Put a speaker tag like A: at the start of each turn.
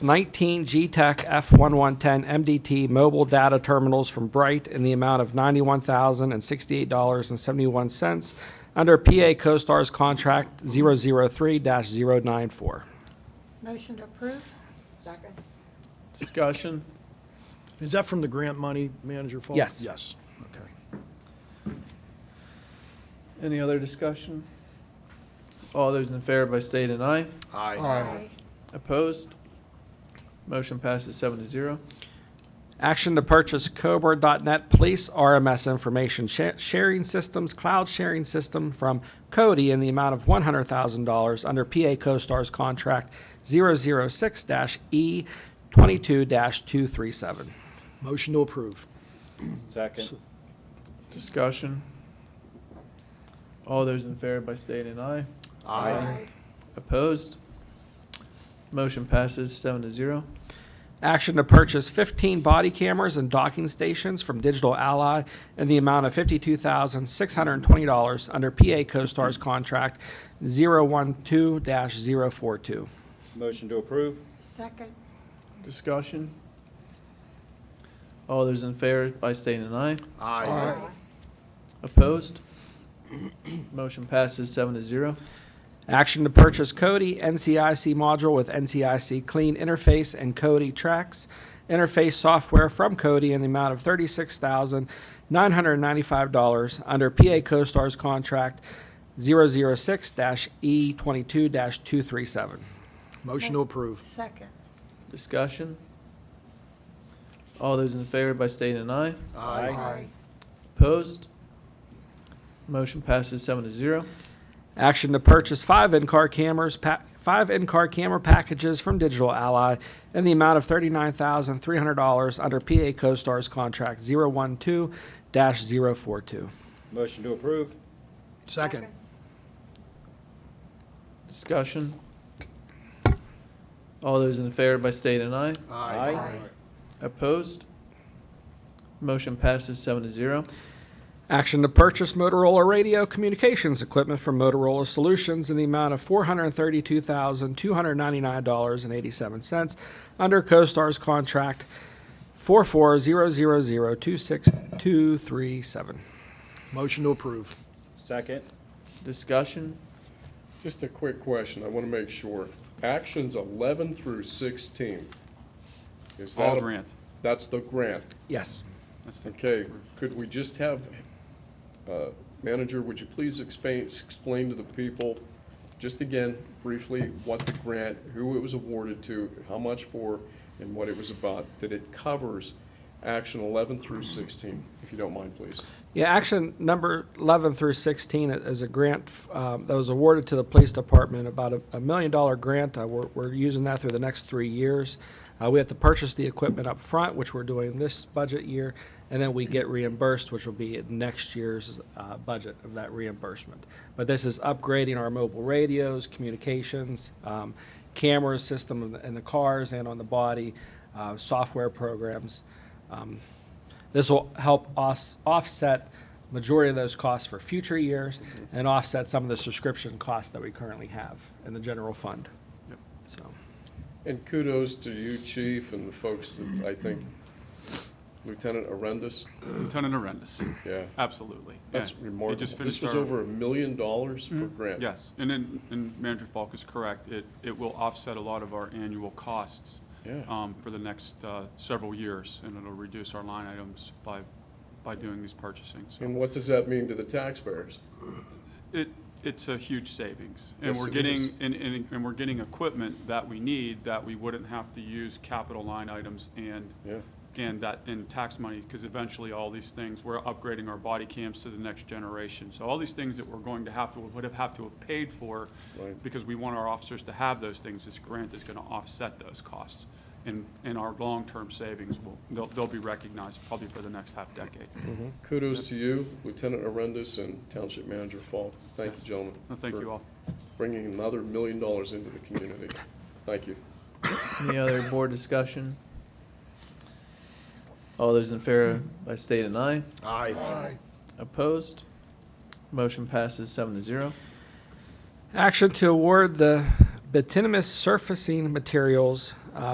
A: 19 G-Tech F1110 MDT mobile data terminals from Bright in the amount of $91,068.71 under PA CoStar's contract 003-094.
B: Motion to approve?
C: Second.
D: Discussion?
E: Is that from the grant money manager fund?
A: Yes.
E: Yes, okay.
D: Any other discussion? All those in favor by state and I.
B: Aye.
D: Opposed? Motion passes seven to zero.
A: Action to purchase Cobra.net Police RMS Information sha- Sharing Systems Cloud Sharing System from Cody in the amount of $100,000 under PA CoStar's contract E 006-E22-237.
E: Motion to approve.
F: Second.
D: Discussion? All those in favor by state and I.
B: Aye.
D: Opposed? Motion passes seven to zero.
A: Action to purchase 15 body cameras and docking stations from Digital Ally in the amount of $52,620 under PA CoStar's contract 012-042.
F: Motion to approve?
B: Second?
D: Discussion? All those in favor by state and I.
E: Aye.
D: Opposed? Motion passes seven to zero.
A: Action to purchase Cody NCIC module with NCIC Clean Interface and Cody Tracks interface software from Cody in the amount of $36,995 under PA CoStar's contract E 006-E22-237.
E: Motion to approve.
B: Second?
D: Discussion? All those in favor by state and I.
B: Aye.
D: Opposed? Motion passes seven to zero.
A: Action to purchase five in-car cameras, pa- five in-car camera packages from Digital Ally in the amount of $39,300 under PA CoStar's contract 012-042.
F: Motion to approve?
E: Second.
D: Discussion? All those in favor by state and I. Opposed? Motion passes seven to zero.
A: Action to purchase Motorola radio communications equipment from Motorola Solutions in the amount of $432,299.87 under CoStar's contract 4400026237.
E: Motion to approve.
F: Second.
D: Discussion?
G: Just a quick question, I want to make sure. Actions 11 through 16. Is that
H: All
G: a-
H: grant.
G: That's the grant.
A: Yes.
H: That's the-
G: Okay, could we just have, uh, Manager, would you please explain, explain to the people, just again, briefly, what the grant, who it was awarded to, how much for, and what it was about, that it covers action 11 through 16, if you don't mind, please?
A: Yeah, action number 11 through 16 i- is a grant um, that was awarded to the police department, about a- a million dollar grant. Uh, We're we're using that through the next three years. Uh, We have to purchase the equipment up front, which we're doing this budget year, and then we get reimbursed, which will be in next year's uh, budget of that reimbursement. But this is upgrading our mobile radios, communications, um, camera system in the- in the cars and on the body, uh, software programs. Um, this will help us offset majority of those costs for future years and offset some of the subscription costs that we currently have in the general fund. So,
G: And kudos to you, Chief, and the folks that, I think, Lieutenant Arendis,
H: Lieutenant Arendis,
G: yeah.
H: absolutely. Yeah.
G: That's
H: They
G: remarkable.
H: just
G: This
H: finished
G: was
H: our- Mm-hmm.
G: over a million dollars for grant.
H: Yes, and then, and Manager Falk is correct. It, it will offset a lot of our annual costs
G: Yeah.
H: um, for the next uh, several years, and it'll reduce our line items by, by doing these purchasing. So
G: And what does that mean to the taxpayers?
H: It, it's a huge savings. And
G: Yes,
H: we're
G: it
H: getting,
G: is.
H: and, and, and we're getting equipment that we need that we wouldn't have to use capital line items and
G: Yeah.
H: and that, and tax money, because eventually all these things, we're upgrading our body cams to the next generation. So all these things that we're going to have to, would have had to have paid for,
G: Right.
H: because we want our officers to have those things, this grant is gonna offset those costs. And, and our long-term savings will, they'll, they'll be recognized probably for the next half decade.
G: Kudos to you, Lieutenant Arendis and Township Manager Falk. Thank you, gentlemen.
H: Well, Thank
G: for
H: you all.
G: Bringing another million dollars into the community. Thank you.
D: Any other board discussion? All those in favor by state and I.
E: Aye.
D: Opposed? Motion passes seven to zero.
A: action to award the bituminous surfacing materials uh,